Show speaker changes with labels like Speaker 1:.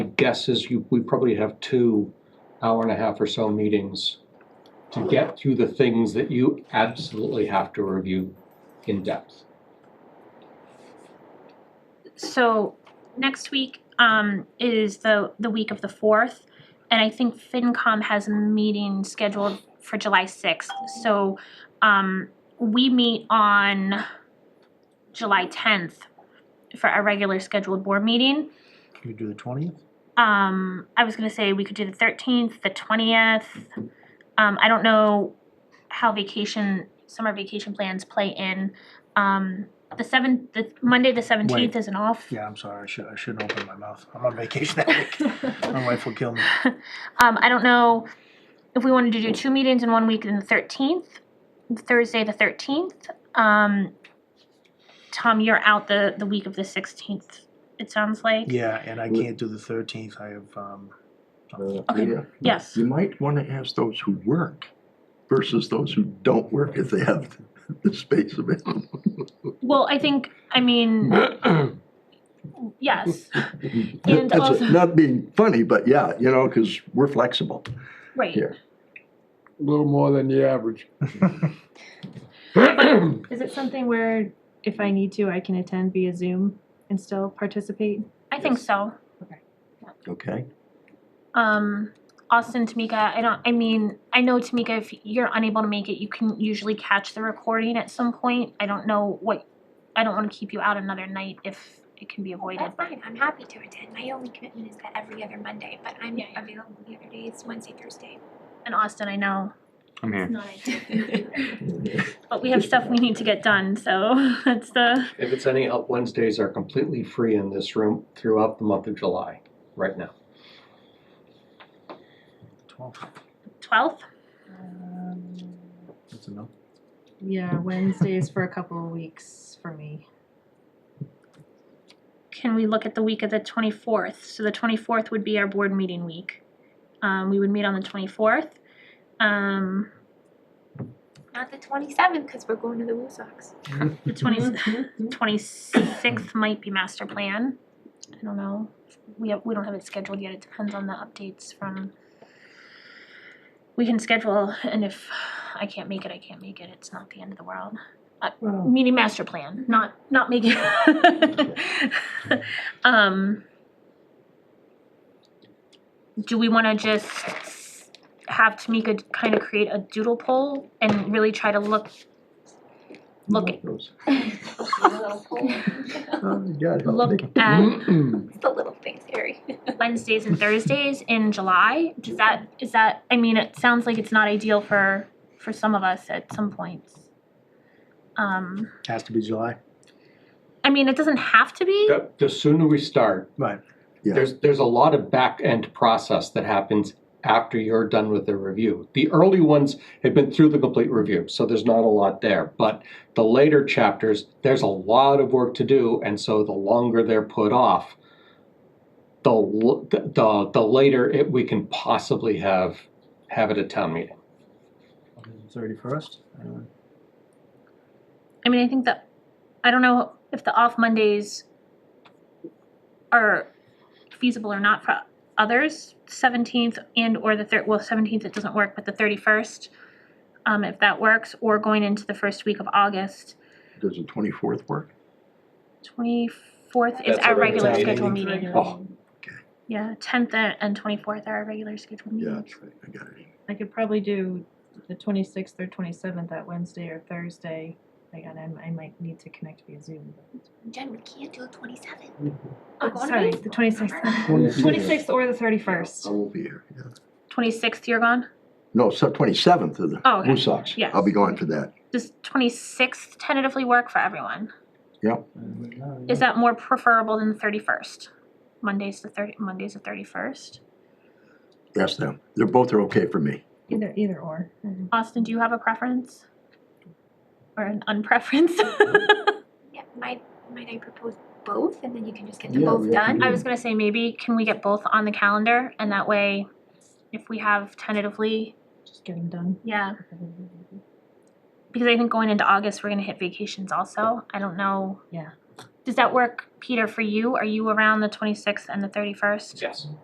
Speaker 1: guess is you, we probably have two hour and a half or so meetings to get through the things that you absolutely have to review in depth.
Speaker 2: So next week um, is the the week of the fourth, and I think FinCom has a meeting scheduled for July sixth. So um, we meet on July tenth for our regular scheduled board meeting.
Speaker 3: Can we do the twentieth?
Speaker 2: Um, I was gonna say we could do the thirteenth, the twentieth. Um, I don't know how vacation, summer vacation plans play in. Um, the seventh, the Monday, the seventeenth
Speaker 3: Wait.
Speaker 2: isn't off.
Speaker 3: Yeah, I'm sorry, I should, I shouldn't open my mouth. I'm on vacation that week. My wife will kill me.
Speaker 2: Um, I don't know if we wanted to do two meetings in one week in the thirteenth, Thursday the thirteenth. Um, Tom, you're out the, the week of the sixteenth, it sounds like.
Speaker 3: Yeah, and I
Speaker 4: We-
Speaker 3: can't do the thirteenth, I have, um,
Speaker 4: Uh,
Speaker 2: Okay,
Speaker 4: yeah.
Speaker 2: yes.
Speaker 4: You might want to ask those who work versus those who don't work if they have the space available.
Speaker 2: Well, I think, I mean, yes, And
Speaker 4: That's
Speaker 2: also-
Speaker 4: Not being funny, but yeah, you know, because we're flexible.
Speaker 2: right.
Speaker 4: Here.
Speaker 5: A little more than the average.
Speaker 6: Is it something where if I need to, I can attend via Zoom and still participate?
Speaker 2: I think so.
Speaker 4: Okay.
Speaker 2: Um, Austin, Tamika, I don't, I mean, I know Tamika, if you're unable to make it, you can usually catch the recording at some point. I don't know what, I don't wanna keep you out another night if it can be avoided,
Speaker 7: That's
Speaker 2: but.
Speaker 7: fine. I'm happy to attend. My only commitment is that every other Monday, but I'm
Speaker 2: Yeah, yeah.
Speaker 7: available the other days, Wednesday, Thursday.
Speaker 2: And Austin, I know,
Speaker 8: I'm
Speaker 2: it's
Speaker 8: here.
Speaker 2: not ideal. But we have stuff we need to get done, so that's the,
Speaker 1: If it's any help, Wednesdays are completely free in this room throughout the month of July, right now.
Speaker 3: twelfth,
Speaker 2: twelfth?
Speaker 3: that's enough.
Speaker 6: Yeah, Wednesdays for a couple of weeks for me.
Speaker 2: Can we look at the week of the twenty-fourth? So the twenty-fourth would be our board meeting week. Um, we would meet on the twenty-fourth. Um,
Speaker 7: Not the 27th because we're going to the Woo Sox.
Speaker 2: the twenty, twenty-sixth might be master plan. I don't know. We have, we don't have it scheduled yet. It depends on the updates from. We can schedule and if I can't make it, I can't make it. It's not the end of the world.
Speaker 4: Well,
Speaker 2: Meaning master plan, not, not make it. Um. Do we wanna just have Tamika kind of create a doodle poll and really try to look? Look,
Speaker 4: those-
Speaker 7: it's
Speaker 4: Oh, yeah, I don't
Speaker 2: look
Speaker 4: think-
Speaker 2: at
Speaker 7: the little things, Harry.
Speaker 2: Wednesdays and Thursdays in July? Does that, is that, I mean, it sounds like it's not ideal for, for some of us at some points. Um,
Speaker 3: Has to be July,
Speaker 2: I mean, it doesn't have to be,
Speaker 1: The the sooner we start,
Speaker 3: right,
Speaker 4: Yeah,
Speaker 1: There's, there's a lot of back-end process that happens after you're done with the review. The early ones have been through the complete review, so there's not a lot there. But the later chapters, there's a lot of work to do, and so the longer they're put off, the, l- the, the- the later it, we can possibly have, have it at town meeting.
Speaker 3: thirty-first, anyone?
Speaker 2: I mean, I think that, I don't know if the off Mondays are feasible or not for others, seventeenth and or the third, well, seventeenth it doesn't work, but the thirty-first, um, if that works, or going into the first week of August.
Speaker 4: does the twenty-fourth work?
Speaker 2: Twenty-fourth is
Speaker 1: That's
Speaker 2: our
Speaker 1: our regular
Speaker 2: regular scheduled
Speaker 1: meeting.
Speaker 2: meeting.
Speaker 1: Oh.
Speaker 2: Yeah, tenth and twenty-fourth are our regular scheduled
Speaker 4: Yeah,
Speaker 2: meetings.
Speaker 4: that's right, I got it.
Speaker 6: I could probably do the twenty-sixth or twenty-seventh, that Wednesday or Thursday. Like, and I'm- I might need to connect via Zoom.
Speaker 7: Jen, we can't do the 27th. We're
Speaker 6: Oh,
Speaker 7: going to
Speaker 6: sorry,
Speaker 7: baseball.
Speaker 6: the twenty-sixth.
Speaker 4: Twenty-
Speaker 6: Twenty-sixth or the thirty-first.
Speaker 4: I won't be here, yeah.
Speaker 2: Twenty-sixth, you're gone?
Speaker 4: No, so twenty-seventh of
Speaker 2: Oh,
Speaker 4: the
Speaker 2: okay.
Speaker 4: Blue Sox.
Speaker 2: Yes.
Speaker 4: I'll be going for that.
Speaker 2: Does twenty-sixth tentatively work for everyone? Is
Speaker 3: Is
Speaker 2: that more preferable than the thirty-first? Monday's the thirty, Monday's the thirty-first.
Speaker 4: Ask them. They're, both are okay for me.
Speaker 6: Either, either or. Mhm.
Speaker 2: Austin, do you have a preference? Or an unpreference?
Speaker 7: Yeah, might, might I propose both and then you can just get them
Speaker 4: Yeah,
Speaker 7: both
Speaker 4: yeah,
Speaker 7: done?
Speaker 4: yeah.
Speaker 2: I was gonna say, maybe can we get both on the calendar and that way, if we have tentatively,
Speaker 6: Just get them done.
Speaker 2: yeah. Because I think going into August, we're gonna hit vacations also. I don't know.
Speaker 6: Yeah.
Speaker 2: Does that work, Peter, for you? Are you around the twenty-sixth and the thirty-first?
Speaker 1: Yes.